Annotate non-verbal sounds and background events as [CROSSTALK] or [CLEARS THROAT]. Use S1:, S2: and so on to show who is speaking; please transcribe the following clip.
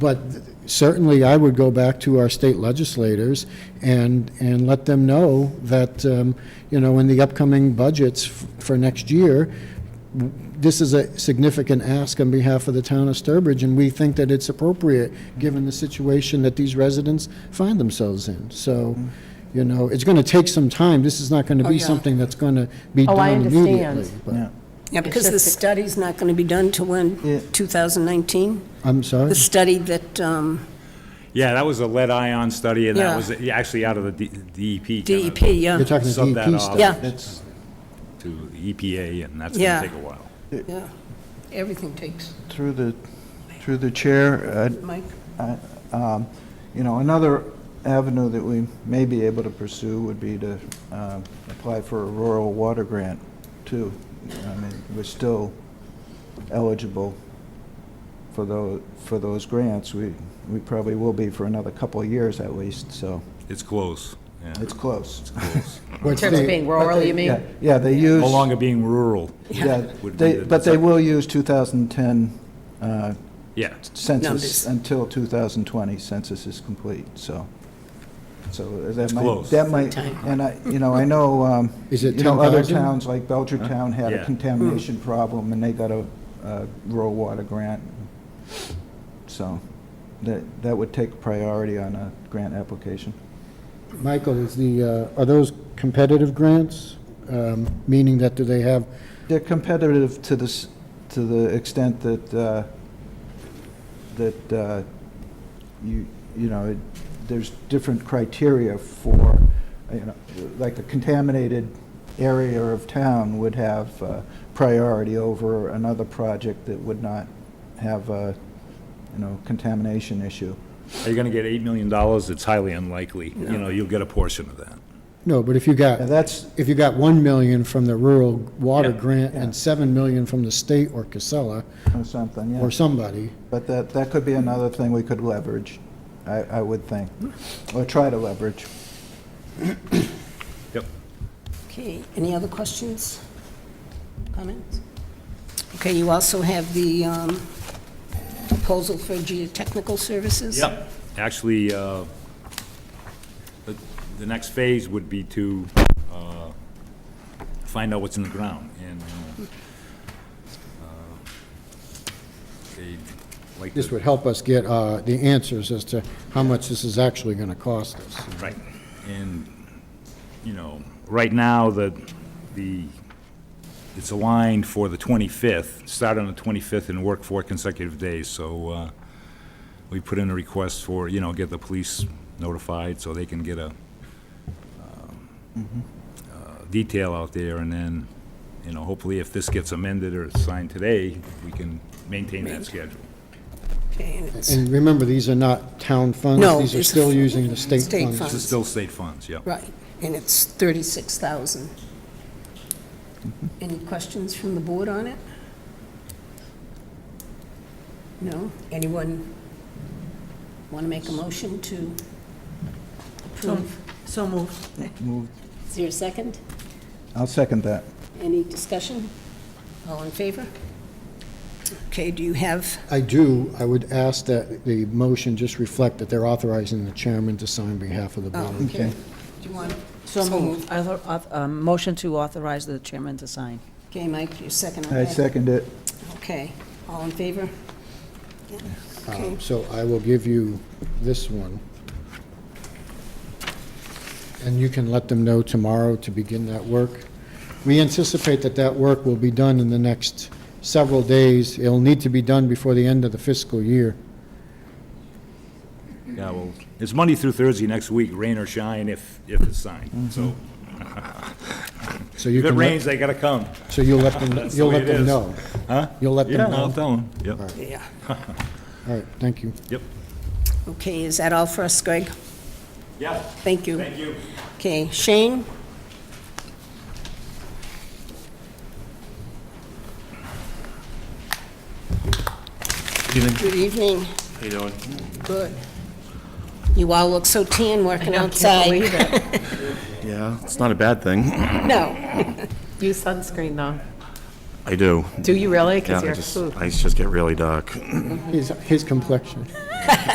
S1: But certainly, I would go back to our state legislators and, and let them know that, um, you know, in the upcoming budgets f- for next year, w- this is a significant ask on behalf of the town of Sturbridge, and we think that it's appropriate, given the situation that these residents find themselves in. So, you know, it's going to take some time. This is not going to be
S2: yeah.
S1: something that's going to be
S3: Oh, I
S1: done
S3: understand.
S1: immediately. but-
S4: Yeah.
S2: Yeah, because the
S3: just-
S2: study's not going to be done till
S4: Yeah.
S2: when, 2019?
S1: I'm sorry?
S2: The study that um,
S5: Yeah, that was a lead ion study, and
S2: Yeah.
S5: that was actually out of the D- DEP. kinda
S2: DEP, E yeah.
S1: You're talking DEP
S5: subbed that
S1: stuff.
S5: off
S2: Yeah.
S4: That's,
S5: To the EPA, and that's
S2: Yeah.
S5: gonna take a while.
S2: Yeah. Everything takes,
S4: through the, through the chair, I'd
S2: Mike?
S4: I- um, You know, another avenue that we may be able to pursue would be to uh, apply for a rural water grant, too. I mean, we're still eligible for those, for those grants. We, we probably will be for another couple of years at least, so
S5: It's close, yeah,
S4: it's close.
S3: In terms of being rural, you
S4: Yeah,
S3: mean?
S4: Yeah, they use.
S5: no longer being rural.
S4: Yeah,
S5: Would be
S4: they,
S5: the-
S4: but they will use 2010 uh,
S5: Yeah,
S2: Numbers.
S4: census until 2020 census is complete, so, so that might,
S5: close.
S4: that might,
S2: Sometime.
S4: and I, you know, I know, um,
S1: Is
S4: you
S1: it
S4: know, other
S1: 10,000?
S4: towns like Belchertown had a
S5: Yeah.
S4: contamination problem and they got a, uh rural water grant. So that, that would take priority on a grant application.
S1: Michael, is the, uh, are those competitive grants? Um, Meaning that do they have,
S4: They're competitive to the, s- to the extent that, uh, that uh, you, you know, it- there's different criteria for, you know, like a contaminated area of town would have uh, priority over another project that would not have a, you know, contamination issue.
S5: are you gonna get eight million dollars? It's highly unlikely, you know, you'll get a portion of that.
S1: no, but if you
S4: Now,
S1: got,
S4: that's,
S1: if you got 1 million from the rural water grant
S4: Yeah.
S1: and 7 million from the state or Casella
S4: or something, yeah.
S1: or somebody,
S4: But that, that could be another thing we could leverage, I, I would think, or try to leverage.
S5: Yep.
S2: Okay, any other questions? Comments? Okay, you also have the um, proposal for geotechnical services?
S5: Yep. Actually, uh, the, the next phase would be to, uh, find out what's in the ground, and, uh, uh, they'd like to...
S1: this would help us get uh, the answers as to how much this is actually going to cost us.
S5: Right, and, you know, right now, the, the, it's aligned for the 25th, start on the 25th and work four consecutive days, so uh, we put in a request for, you know, get the police notified so they can get a um, uh, detail out there, and then, you know, hopefully if this gets amended or signed today, we can maintain that schedule.
S2: Okay, and it's-
S1: And remember, these are not town funds.
S2: No,
S1: These are
S2: it's-
S1: still using the state
S2: State
S1: funds.
S2: funds.
S5: This is still state funds, yeah.
S2: Right, and it's 36,000. Any questions from the board on it? No? Anyone want to make a motion to approve?
S6: So moved.
S2: Is there a second?
S4: I'll second that.
S2: Any discussion? All in favor? Okay, do you have,
S1: I do, I would ask that the motion just reflect that they're authorizing the chairman to sign on behalf of the
S2: oh,
S1: board.
S2: okay. Do you want?
S6: So moved. Author- auth- um, Motion to authorize the chairman to sign.
S2: Okay, Mike, your second on
S4: I
S2: that?
S4: second it.
S2: Okay, all in favor? Yeah. Okay,
S1: Um, So I will give you this one. And you can let them know tomorrow to begin that work. We anticipate that that work will be done in the next several days. It'll need to be done before the end of the fiscal year.
S5: Yeah, well, it's Monday through Thursday next week, rain or shine, if, if it's signed, so.
S1: So you
S5: If
S1: Mm-hmm.
S5: it
S1: can,
S5: rains,
S1: let-
S5: they gotta come.
S1: so you'll let them,
S5: That's the
S1: you'll
S5: way
S1: let
S5: it
S1: them
S5: is.
S1: know.
S5: Huh?
S1: You'll let them
S5: Yeah,
S1: know.
S5: I'll tell them, yep,
S2: yeah.
S1: All right, thank you.
S5: yep.
S2: Okay, is that all for us, Greg?
S5: Yeah,
S2: Thank you.
S5: you.
S2: Okay, Shane? Good evening. How you doing? Good. You all look so tan working outside.
S7: Yeah, it's not a bad thing.
S2: No,
S3: Use sunscreen, though.
S5: [CLEARS THROAT] I do.
S3: Do you really?
S5: Yeah,
S3: Because
S5: I
S3: you're.
S5: just,
S3: ooh.
S5: I just get really dark.
S1: his, his complexion.